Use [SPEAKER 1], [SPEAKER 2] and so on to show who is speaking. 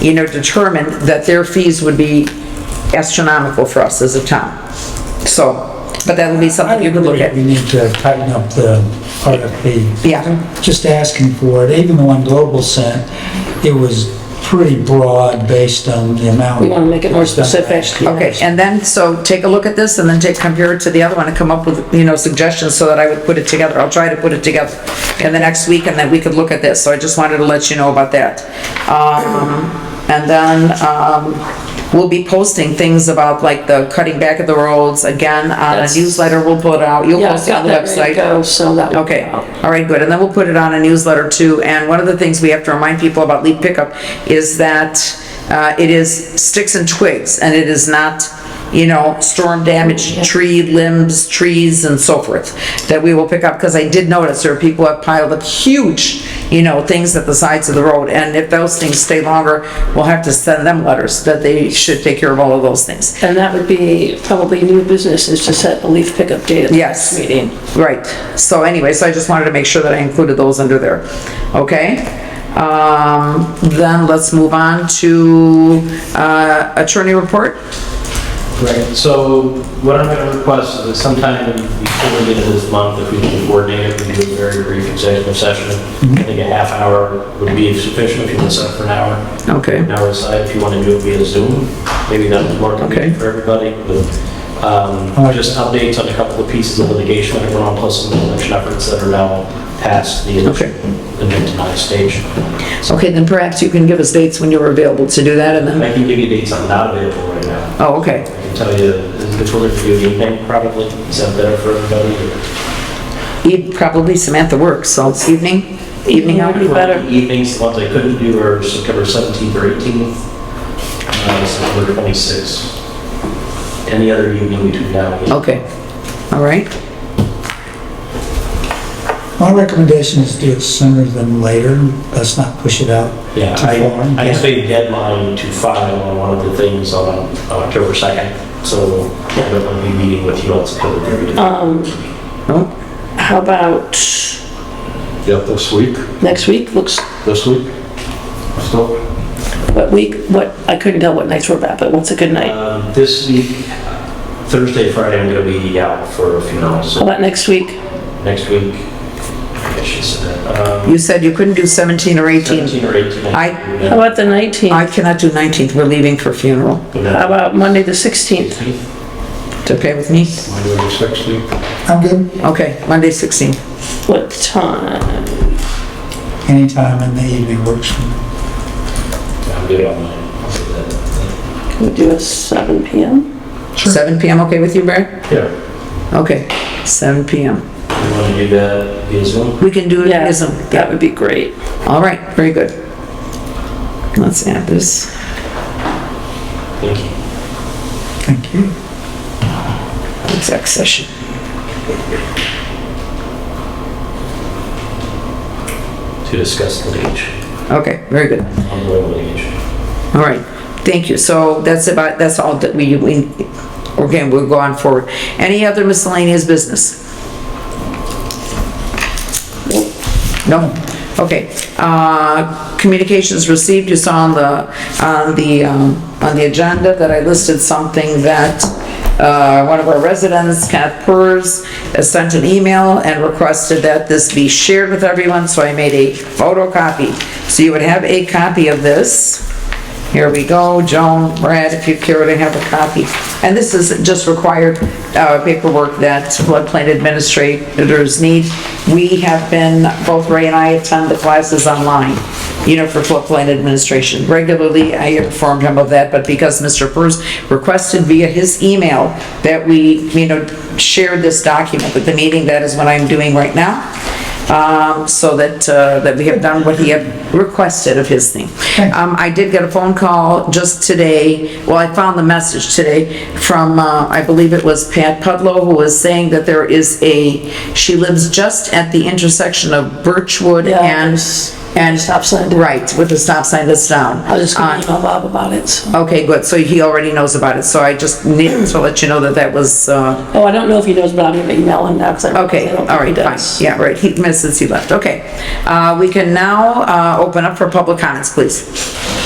[SPEAKER 1] you know, determined that their fees would be astronomical for us as a town. So, but that'll be something you can look
[SPEAKER 2] We
[SPEAKER 1] at.
[SPEAKER 2] need to tighten up the RFP.
[SPEAKER 1] Yeah,
[SPEAKER 2] Just asking for it, even the one Global sent, it was pretty broad based on the amount.
[SPEAKER 3] We want to make it more specific. yeah.
[SPEAKER 1] okay, and then, so take a look at this and then take, compare it to the other one and come up with, you know, suggestions so that I would put it together. I'll try to put it together in the next week and then we could look at this. So I just wanted to let you know about that. Um, and then, um, we'll be posting things about like the cutting back of the roads again on a
[SPEAKER 3] That's-
[SPEAKER 1] newsletter we'll put out. You'll
[SPEAKER 3] Yeah,
[SPEAKER 1] post
[SPEAKER 3] I've
[SPEAKER 1] it on
[SPEAKER 3] got
[SPEAKER 1] the
[SPEAKER 3] that ready to
[SPEAKER 1] website.
[SPEAKER 3] go, so that. will
[SPEAKER 1] Okay,
[SPEAKER 3] go out.
[SPEAKER 1] all right, good, and then we'll put it on a newsletter too, and one of the things we have to remind people about leaf pickup is that uh, it is sticks and twigs, and it is not, you know, storm damaged tree limbs, trees and so forth, that we will pick up, because I did notice there are people have piled up huge, you know, things at the sides of the road, and if those things stay longer, we'll have to send them letters that they should take care of all of those things.
[SPEAKER 3] And that would be probably new business is to set a leaf pickup date at the
[SPEAKER 1] Yes.
[SPEAKER 3] next meeting.
[SPEAKER 1] Right, so anyway, so I just wanted to make sure that I included those under there, okay? Um, then let's move on to, uh, attorney report.
[SPEAKER 4] Right, so what I'm gonna request is that sometime before the end of this month, if we can coordinate it, we do a very brief executive session. I think a half hour would be sufficient if you want to set up for an hour.
[SPEAKER 1] Okay,
[SPEAKER 4] An hour aside, if you want to do it via Zoom, maybe that's more convenient for everybody. but, Um,
[SPEAKER 2] I like
[SPEAKER 4] just updates on a couple of pieces of litigation that are going on, plus some election efforts that are now past the
[SPEAKER 1] Okay.
[SPEAKER 4] initial, initial stage.
[SPEAKER 1] okay, then perhaps you can give us dates when you're available to do that and
[SPEAKER 4] And
[SPEAKER 1] then,
[SPEAKER 4] I can give you dates I'm not available right now.
[SPEAKER 1] oh, okay.
[SPEAKER 4] I can tell you, it's going to be an evening probably, is that better for everybody?
[SPEAKER 1] E- Probably Samantha works, so it's evening, evening
[SPEAKER 3] Evening
[SPEAKER 1] hour.
[SPEAKER 3] would be better.
[SPEAKER 4] Evenings, the ones I couldn't do are September 17th or 18th, uh, September 26th. Any other evening between now and then.
[SPEAKER 1] Okay, all right,
[SPEAKER 2] My recommendation is do it sooner than later, let's not push it out
[SPEAKER 4] Yeah,
[SPEAKER 2] too
[SPEAKER 4] I, I
[SPEAKER 2] far.
[SPEAKER 4] have a deadline to file on one of the things on on October 2nd, so I'm going to be meeting with you on September 30th.
[SPEAKER 3] Um,
[SPEAKER 1] oh,
[SPEAKER 3] how about
[SPEAKER 4] Oh.
[SPEAKER 5] Yeah, this week,
[SPEAKER 3] next week? Looks,
[SPEAKER 5] this week. So,
[SPEAKER 3] what week, what, I couldn't tell what nights were about, but what's a good night?
[SPEAKER 4] Um, This week, Thursday, Friday, I'm going to be out for a funeral,
[SPEAKER 3] How
[SPEAKER 4] so
[SPEAKER 3] about next week?
[SPEAKER 4] next week, I should say that. Um,
[SPEAKER 1] you said you couldn't do 17 or 18.
[SPEAKER 4] 17 or 18.
[SPEAKER 1] I-
[SPEAKER 3] How about the 19th?
[SPEAKER 1] I cannot do 19th, we're leaving for funeral,
[SPEAKER 3] How about Monday, the 16th?
[SPEAKER 4] Monday
[SPEAKER 1] It's okay with me?
[SPEAKER 5] Monday the 16th,
[SPEAKER 2] I'm good,
[SPEAKER 1] Okay, Monday 16.
[SPEAKER 3] What time?
[SPEAKER 2] anytime in the evening works for me.
[SPEAKER 4] I'm good on mine.
[SPEAKER 3] Can we do a 7 PM?
[SPEAKER 1] 7 PM, okay with you, Brad?
[SPEAKER 4] Yeah.
[SPEAKER 1] Okay, 7 PM.
[SPEAKER 4] You want to do that via Zoom?
[SPEAKER 1] We can do it
[SPEAKER 3] Yeah,
[SPEAKER 1] as a,
[SPEAKER 3] that would be great.
[SPEAKER 1] all right, very good. Let's add this.
[SPEAKER 4] Thank you.
[SPEAKER 2] Thank you.
[SPEAKER 1] exec session.
[SPEAKER 4] To discuss litigation,
[SPEAKER 1] Okay, very good.
[SPEAKER 4] ongoing litigation.
[SPEAKER 1] All right, thank you. So that's about, that's all that we, we, again, we'll go on forward. Any other miscellaneous business? No? Okay. Uh, Communications received, you saw on the, on the, um, on the agenda that I listed something that uh, one of our residents, Kenneth Purz, uh, sent an email and requested that this be shared with everyone, so I made a photocopy. So you would have a copy of this. Here we go, Joan, Brad, if you care to have a copy. And this is just required uh, paperwork that floodplain administrators need. We have been, both Ray and I attend the classes online, you know, for floodplain administration. Regularly, I informed him of that, but because Mr. Purz requested via his email that we, you know, share this document with the meeting, that is what I'm doing right now um, so that, uh, that we have done what he had requested of his thing. Um, I did get a phone call just today, well, I found the message today from, uh, I believe it was Pat Pudlow, who was saying that there is a, she lives just at the intersection of Birchwood
[SPEAKER 3] Yeah,
[SPEAKER 1] and,
[SPEAKER 3] there's-
[SPEAKER 1] and,
[SPEAKER 3] Stop sign.
[SPEAKER 1] right, with the stop sign that's down.
[SPEAKER 3] I was just
[SPEAKER 1] Uh,
[SPEAKER 3] gonna email Bob about it, so.
[SPEAKER 1] Okay, good, so he already knows about it, so I just needed to let you know that that was, uh,
[SPEAKER 3] Oh, I don't know if he knows, but I'm gonna email him now, because I don't
[SPEAKER 1] Okay, all
[SPEAKER 3] think he
[SPEAKER 1] right, fine.
[SPEAKER 3] does.
[SPEAKER 1] Yeah, right, he, since he left, okay. Uh, We can now uh, open up for public comments, please.